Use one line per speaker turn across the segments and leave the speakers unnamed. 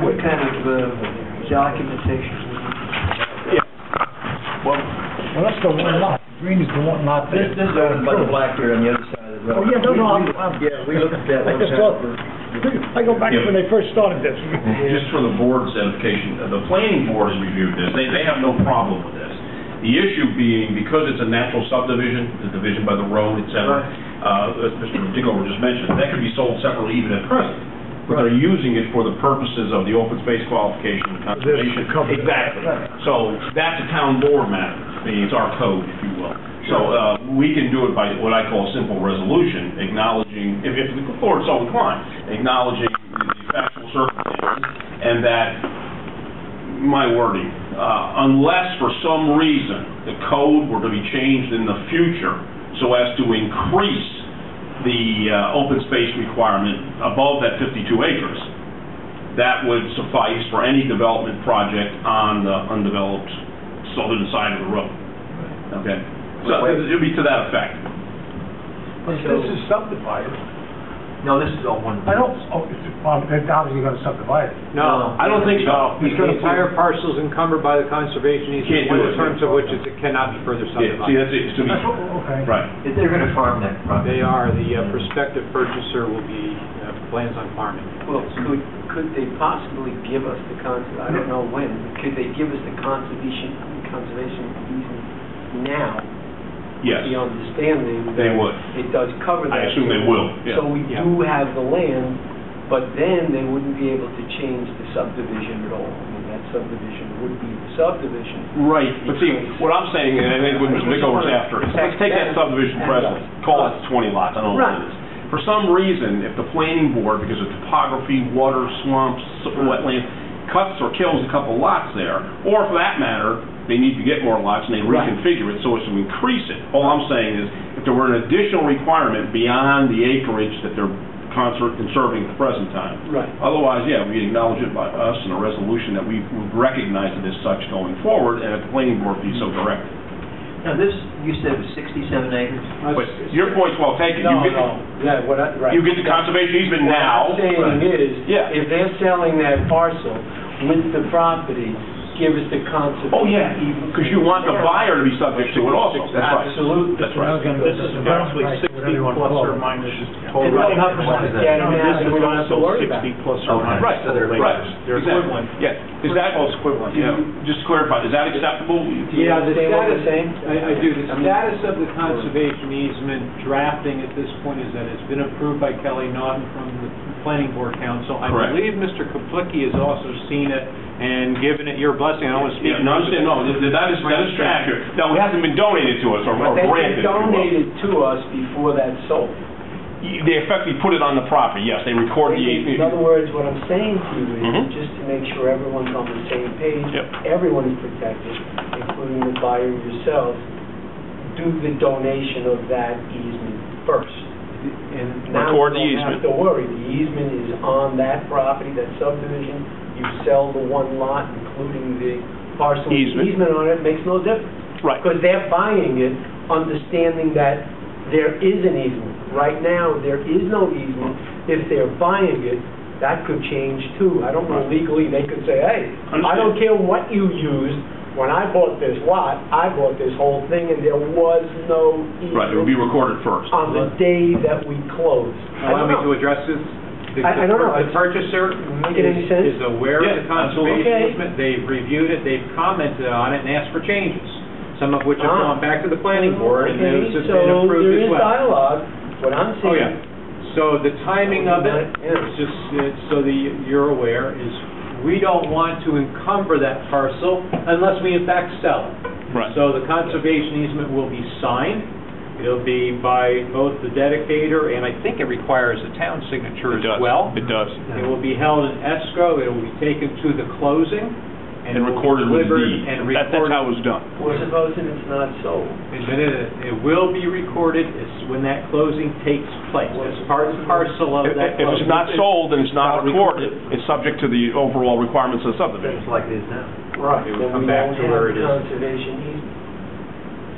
what kind of uh, documentation?
Well,
Well, that's the one lot, green is the one lot
this,
that.
this is
uh,
over by the Blackberry on the other side of the road.
Oh, yeah, no, no, I'm, I'm.
Yeah, we looked at that one
I just
time.
thought- I go back to when they first started this.
just for the board's edification, uh, the planning board has reviewed this, they, they have no problem with this. The issue being, because it's a natural subdivision, the division by the road, et cetera, uh, as Mr. Digover just mentioned, that could be sold separately even at present. But they're using it for the purposes of the open space qualification and conservation.
covenant.
Exactly. So that's a town board matter, it's our code, if you will. So, uh, we can do it by what I call a simple resolution, acknowledging, if, if the board so inclined, acknowledging the factual circumstances and that, my wording, uh, unless for some reason the code were to be changed in the future so as to increase the uh, open space requirement above that 52 acres, that would suffice for any development project on the undeveloped southern side of the road. Okay? So it would be to that effect.
But this is subdivided.
No, this is all one.
I don't, oh, it's, well, they're obviously gonna subdivide it.
No,
I don't think so.
because the entire parcel is encumbered by the conservation
Can't
easement,
do
in
it.
terms of which it's- it cannot be further
Yeah, see,
subdivided.
that's it, to me.
Okay.
Right.
If they're going to farm that property,
They are, the uh, prospective purchaser will be, uh, plans on farming.
well, could, could they possibly give us the conservation, I don't know when, but could they give us the conservation, conservation easement now?
Yes,
The understanding
they
that
would.
it does cover that.
I assume they will, yeah.
So we
Yeah.
do have the land, but then they wouldn't be able to change the subdivision at all. I mean, that subdivision would be the subdivision,
Right, but see, what I'm saying, and I think what Mr. Mickover's after, is let's take that subdivision precedent, call it 20 lots, I don't know what it is. For some reason, if the planning board, because of topography, water, swamps, wetlands, cuts or kills a couple lots there, or for that matter, they need to get more lots and they reconfigure it so as to increase it. All I'm saying is, if there were an additional requirement beyond the acreage that they're conser- conserving at the present time,
Right.
Otherwise, yeah, we acknowledge it by us in a resolution that we would recognize it as such going forward, and if the planning board be so directed.
Now, this, you said was 67 acres?
But your point's well taken. You
No,
get-
no, yeah, what I, right.
You get the conservation easement now.
What I'm saying is,
Yeah.
if they're selling that parcel with the property, give us the conservation.
Oh, yeah, because you want the buyer to be subject to it also. That's right.
Absolutely.
That's right.
This is approximately sixty plus or minus.
And we don't have to look at it now, and we don't have to worry about it.
plus
Right, right.
They're
Exactly.
equivalent.
Yeah. Is that,
Close equivalent,
yeah, just to clarify, is that acceptable?
Yeah, the
Understand what I'm
status,
saying?
I, I do, the status of the conservation easement drafting at this point is that it's been approved by Kelly Naughton from the Planning Board Council. I
Correct.
believe Mr. Kaplicki has also seen it and given it your blessing, I don't want to speak.
Yeah, no, I understand, no, th- th- that is, that is accurate. Now, it hasn't been donated to us or or
But they
granted.
they
if you will.
donated to us before that sold.
They effectively put it on the property, yes, they record the
In other
easement.
words, what I'm saying to you
Mhm.
is, just to make sure everyone's on the same page,
Yep.
everyone is protected, including the buyer yourself, do the donation of that easement first. And now
Record the
you don't
easement.
have to worry, the easement is on that property, that subdivision, you sell the one lot, including the parcel with the
Easement.
easement on it, makes no difference.
Right.
Because they're buying it, understanding that there is an easement. Right now, there is no easement. If they're buying it, that could change too. I don't know legally, they could say, hey, I don't care what you used, when I bought this lot, I bought this whole thing and there was no
Right, it would be
easement
recorded first.
on the day that we closed. I
Allow
don't
me
know.
to address this. The-
I- I don't know.
The purchaser
Make it any sense?
is is aware of the
Yeah, absolutely.
conservation
Okay.
easement, they've reviewed it, they've commented on it and asked for changes, some of which have
Ah.
gone back to the planning board and
Okay,
those have been approved as
So there is
well.
dialogue, what I'm
Oh,
saying.
yeah. So the timing of it,
Yeah.
it's just, it's so that you're aware, is we don't want to encumber that parcel unless we in fact sell it.
Right.
So the conservation easement will be signed. It'll be by both the dedicator, and I think it requires a town signature as well.
It does.
It will be held in escrow, it will be taken to the closing, and
And
it will be
recorded with the
delivered
deed.
and
That- That's how
recorded.
it was done.
We're supposing it's not sold.
And then it, it will be recorded as- when that closing takes place, as part and parcel of
If
that
if
closing.
it's not sold and it's not recorded, it's subject to the overall requirements of the subdivision.
like it is now. Right.
It would
Then
come
we
back
don't
to where
have
it is.
conservation easement.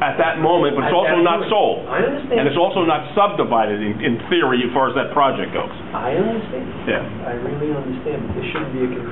At that moment, but it's
At
also
that
not
point.
sold.
I understand.
And it's also not subdivided in, in theory as far as that project goes.
I understand.
Yeah.
I really understand, but there shouldn't be a confusion.